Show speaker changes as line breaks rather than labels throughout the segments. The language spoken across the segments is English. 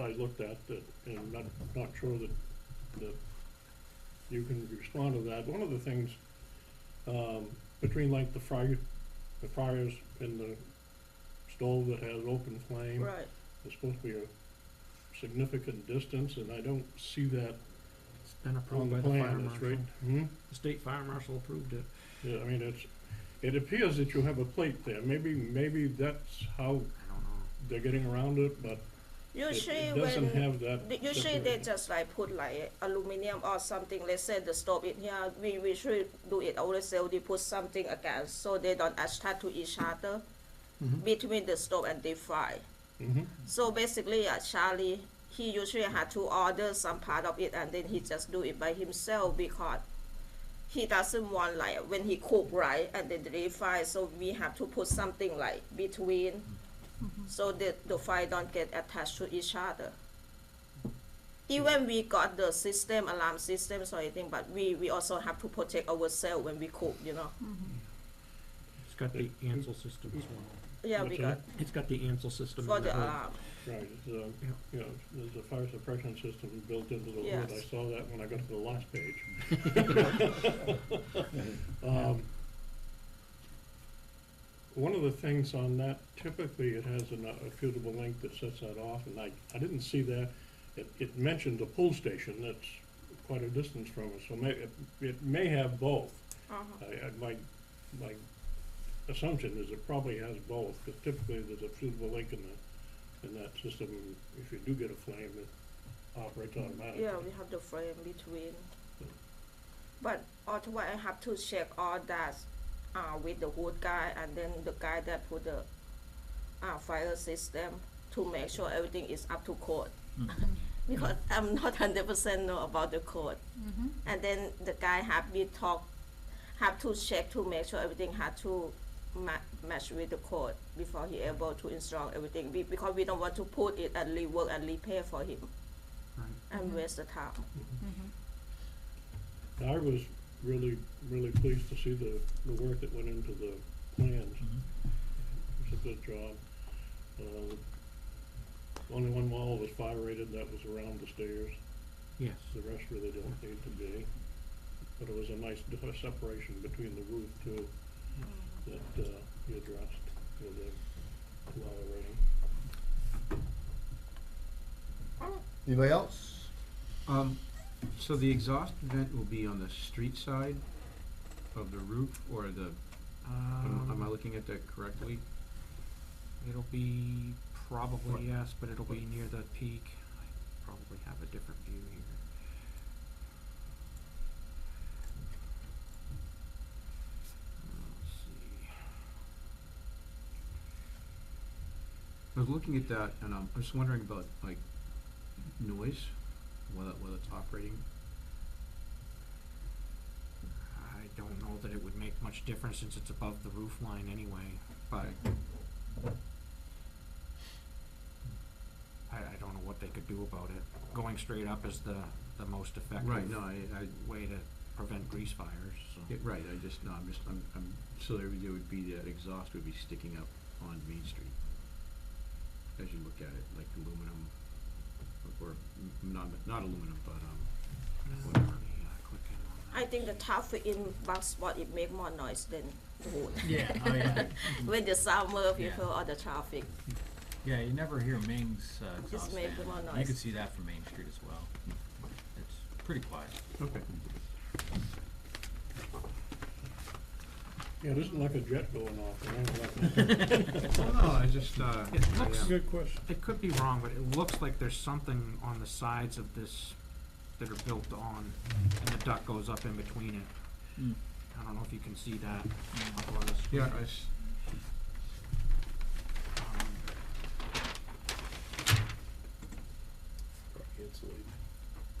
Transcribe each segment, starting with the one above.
I looked at, that, and I'm not, not sure that, that you can respond to that. One of the things, um, between like the fire, the fires and the stove that has open flame.
Right,
There's supposed to be a significant distance, and I don't see that
It's been
on
approved
the
by the fire
plan, that's right.
marshal.
Hmm?
The state fire marshal approved it.
Yeah, I mean, it's, it appears that you have a plate there. Maybe, maybe that's how
I don't know.
they're getting around it, but it,
usually
it
when.
doesn't have that.
Th- Usually they
separation.
just like put like aluminum or something, let's say the stove in here, we, we should do it ourselves, they put something against, so they don't attach to each other
Mm-hmm.
Mhm.
between the stove and the fire.
Mhm.
So basically, uh, Charlie, he usually had to order some part of it and then he just do it by himself because he doesn't want like when he cook right and then they fire, so we have to put something like between so that the fire don't get attached to each other. Even we got the system, alarm systems or anything, but we, we also have to protect ourselves when we cook, you know.
It's got the Ansel system as well.
Yeah, we
What's
got
that?
It's got the Ansel system.
for
in the
the uh,
hood.
alarm.
Right, it's, um,
Yeah.
you know, there's a fire suppression system built into the wood. I
Yes.
saw that when I got to the last page. Um, One of the things on that, typically it has an, uh, a suitable link that sets that off, and I, I didn't see that. It, it mentioned a pull station that's quite a distance from us, so may, it, it may have both.
Uh-huh.
I, I, my, my assumption is it probably has both, because typically there's a fusible link in the, in that system, and if you do get a flame, it operates automatically.
Mm-hmm. Yeah, we have the frame between. But otherwise, I have to check all that uh, with the wood guy and then the guy that put the uh, fire system to make sure everything is up to code. because I'm not hundred percent know about the code. And then the guy have me talk, have to check to make sure everything had to ma- match with the code before he able to install everything. Be- because we don't want to put it and rework and repair for him
Right.
and waste the time.
And Mm-hmm. I was really, really pleased to see the, the work that went into the plans.
Mm-hmm.
It was a good job. Um, Only one wall was fire rated, that was around the stairs.
Yes.
The rest really don't need to be. But it was a nice d- separation between the roof too, that uh, you addressed with the lower rating.
Anybody else?
Um, so the exhaust vent will be on the street side of the roof or the, am am I
Um,
looking at that correctly?
it'll be probably yes, but it'll be near the peak. I probably have a different view here. Let's see.
I was looking at that and um, I was wondering about like noise, whether, whether it's operating.
I don't know that it would make much difference since it's above the roof line anyway, but I, I don't know what they could do about it. Going straight up is the, the most effective
Right, no, I, I,
way to prevent grease fires, so.
Yeah, right, I just, no, I'm just, I'm, I'm, so there would- there would be, that exhaust would be sticking up on Main Street. As you look at it, like aluminum, or, m- not, not aluminum, but, um, whatever.
I think the traffic in Bangkok spot it make more noise than the wood.
Yeah, oh yeah.
when the summer
Yeah.
people or the traffic,
Yeah, you never hear Ming's uh, exhaust
make
fan.
more
You
noise.
can see that from Main Street as well. It's pretty quiet.
Okay.
Yeah, it isn't like a jet going off, or anything like that.
No, I just, uh,
It looks,
yeah.
Good question.
it could be wrong, but it looks like there's something on the sides of this that are built on, and the duct goes up in between it.
Mm.
I don't know if you can see that up on the screen.
yeah, I s-
Um,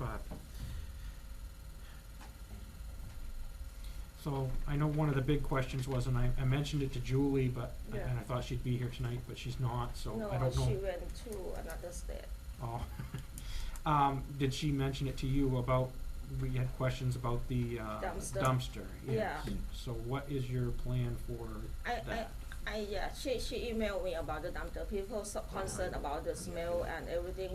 Um, But. So I know one of the big questions was, and I, I mentioned it to Julie, but, and
Yeah.
I thought she'd be here tonight, but she's not, so
no,
I don't know.
she went to another state.
Oh. Um, did she mention it to you about, we had questions about the, uh,
Dumpster.
dumpster, yes.
Yeah.
So what is your plan for
I, I,
that?
I yeah. She she emailed me about the dumpster people so concerned about the smell and everything.